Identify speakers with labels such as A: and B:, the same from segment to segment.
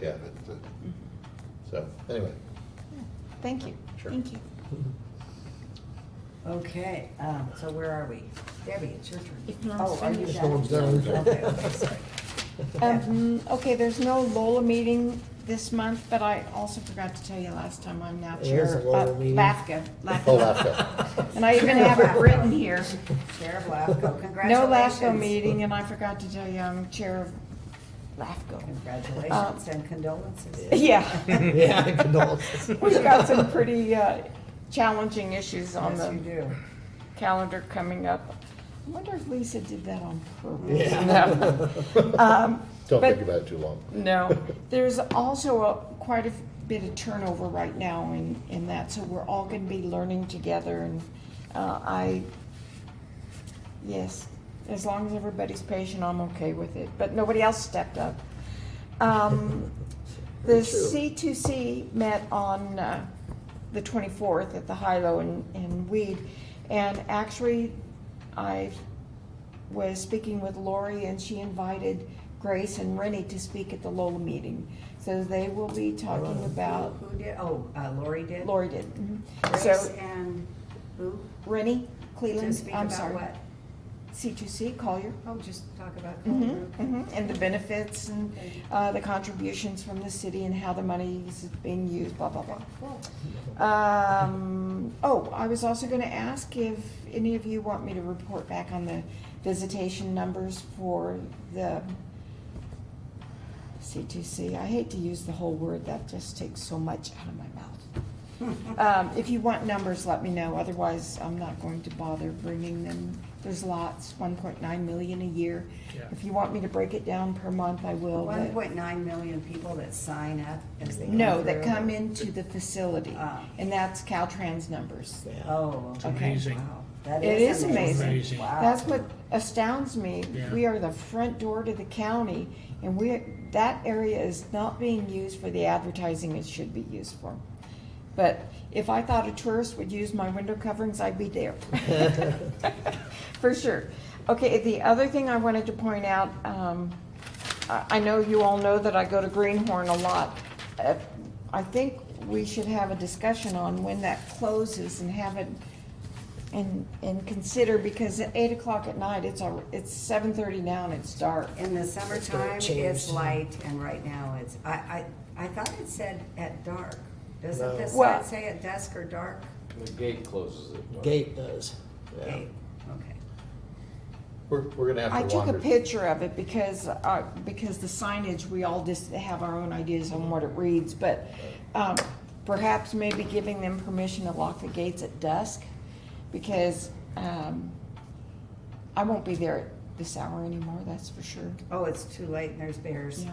A: yeah, that's the,
B: Mm-hmm.
A: so, anyway,
C: Thank you.
A: sure.
D: Thank you.
E: Okay, um, so where are we? Debbie, it's your turn.
D: If Norm's
E: Oh, are you
D: finished.
A: Just no one's done.
E: Okay, okay, sorry.
C: Um, okay, there's no Lola meeting this month, but I also forgot to tell you last time, I'm now
B: There is
C: chair of
B: a Lola meeting.
C: LAFCA.
A: Oh,
C: LAFCA.
A: laughter.
C: And I even have it written here.
E: Sheriff Lafco,
C: No
E: congratulations.
C: LAFCO meeting, and I forgot to tell you, I'm chair of LAFCO.
E: Congratulations and condolences.
C: Yeah,
B: Yeah, condolences.
C: we've got some pretty, uh, challenging issues on
E: Yes, you
C: the
E: do.
C: calendar coming up. I wonder if Lisa did that on purpose.
B: Yeah.
C: Um,
A: Don't
C: but-
A: think about it too long.
C: No, there's also a, quite a bit of turnover right now in, in that, so we're all gonna be learning together and, uh, I, yes, as long as everybody's patient, I'm okay with it, but nobody else stepped up. Um, the
B: Very true.
C: C2C met on, uh, the twenty-fourth at the Hilo in, in Weed, and actually, I was speaking with Lori and she invited Grace and Rennie to speak at the Lola meeting. So they will be talking about,
E: Who did, oh, uh, Lori did?
C: Lori did. mhm.
E: Mm-hmm. Grace
C: So
E: and who?
C: Rennie,
E: To
C: Cleland,
E: speak
C: I'm
E: about
C: sorry.
E: what?
C: C2C, Collier.
E: Oh, just talk about
C: Mhm,
E: Collier.
C: mhm. And the benefits and uh, the contributions from the city and how the money is being used, blah, blah, blah.
E: Cool.
C: Um, oh, I was also gonna ask if any of you want me to report back on the visitation numbers for the C2C. I hate to use the whole word, that just takes so much out of my mouth. Um, if you want numbers, let me know, otherwise I'm not going to bother bringing them. There's lots, one point nine million a year.
B: Yeah.
C: If you want me to break it down per month, I will, but-
E: One point nine million people that sign up as they.
C: no,
E: go
C: that
E: through.
C: come into the facility,
E: Ah.
C: and that's Caltrans numbers.
B: Yeah.
E: Oh,
B: It's
E: okay.
B: amazing.
E: Wow. That
C: It
E: is
C: is
E: amazing.
B: amazing.
E: Wow.
C: That's what astounds me.
B: Yeah.
C: We are the front door to the county, and we, that area is not being used for the advertising it should be used for. But if I thought a tourist would use my window coverings, I'd be there. For sure. Okay, the other thing I wanted to point out, um, I, I know you all know that I go to Greenhorn a lot. Uh, I think we should have a discussion on when that closes and have it, and, and consider, because at eight o'clock at night, it's, al- it's seven thirty now and it's dark.
E: In the
B: gonna
E: summertime,
B: change.
E: it's light, and right now it's, I, I, I thought it said at dark. Doesn't
B: No.
E: this
C: Well-
E: sign say at dusk or dark?
F: The gate closes at dark.
B: Gate does.
E: Okay, okay.
A: We're, we're gonna
C: I
A: have to
C: took a
A: wander.
C: picture of it because, uh, because the signage, we all just have our own ideas on what it reads, but, um, perhaps maybe giving them permission to lock the gates at dusk, because, um, I won't be there at this hour anymore, that's for sure.
E: Oh, it's too late, and there's bears
C: Yeah.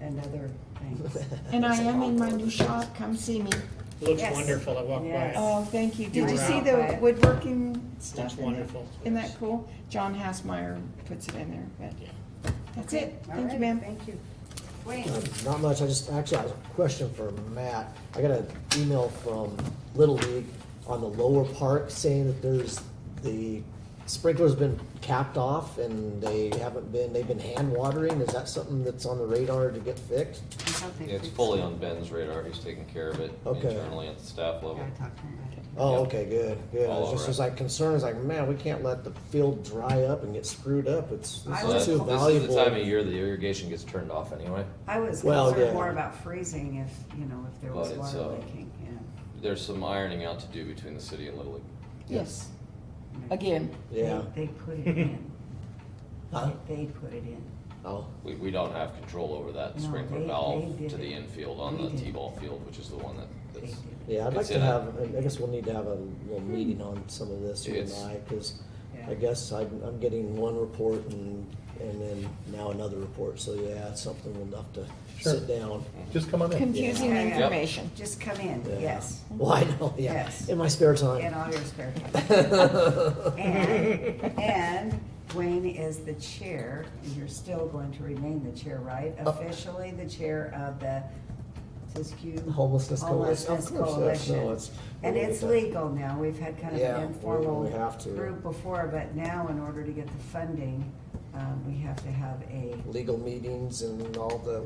E: and other things.
C: And I am in my new shop, come see me.
B: Looks
E: Yes.
B: wonderful, I walked
E: Yes.
B: by.
C: Oh, thank you.
E: You
C: Did you
E: were
C: see
E: out by
C: the
E: it.
C: woodworking stuff? in there?
B: wonderful.
C: Isn't that cool? John Hassmeyer puts it in there,
B: Yeah.
C: but that's it.
E: All
C: Thank you,
E: right,
C: ma'am.
E: Thank you. Wayne,
B: Um, Not much, I just, actually, I have a question for Matt. I got an email from Little League on the lower park saying that there's, the sprinkler's been capped off and they haven't been, they've been hand watering. Is that something that's on the radar to get fixed?
E: I thought they
F: Yeah, It's
E: fixed
F: fully
E: it.
F: on Ben's radar, he's taking care of it
B: Okay.
F: internally at the staff
E: Yeah,
F: level.
E: I talked to him about it.
B: Oh,
F: Yep.
B: okay, good, good.
F: All
B: It's just,
F: over
B: it's
F: it.
B: like concerns, like, man, we can't let the field dry up and get screwed up. It's,
E: I
B: this is
E: was-
F: So that's-
B: too
F: This is
B: valuable.
F: the time of year the irrigation gets turned off anyway.
E: I was
B: Well,
E: concerned
B: yeah.
E: more about freezing if, you know, if there was
F: But it's,
E: water
F: uh,
E: leaking, yeah.
F: There's some ironing out to do between the city and Little League.
C: Yes, again.
B: Yeah.
E: They they put it in.
B: Huh?
E: They put it in.
B: Oh,
F: We, we don't have control over that
E: No,
F: sprinkler
E: they-
F: valve
E: they did
F: to the
E: it.
F: infield on
E: We
F: the
E: did it.
F: T-ball field, which is the one that,
E: They
F: that's,
E: did.
B: yeah, I'd like
F: It's
B: to
F: in a-
B: have, I guess we'll need to have a little meeting on some of this, you and
F: It's-
B: I, because
E: Yeah.
B: I guess I, I'm getting one report and, and then now another report, so yeah, it's something we'll have to
A: Sure.
B: sit down.
A: Just come on in.
C: Confusing
E: Yeah.
C: information.
E: Just come in,
B: Yeah.
E: yes,
B: Well, I know, yeah,
E: Yes.
B: in my spare
E: in
B: time.
E: all your spare time. And, and Wayne is the chair, and you're still going to remain the chair, right?
B: Oh.
E: Officially the chair of the Siskiyou.
B: Homelessness Coalition.
E: Homelessness
B: Of course, yes. No,
E: Coalition.
B: it's-
E: And it's legal now, we've had kind of
B: Yeah,
E: an
B: we-
E: informal
B: we have to.
E: group before, but now in order to get the funding, um, we have to have a
B: Legal meetings and all the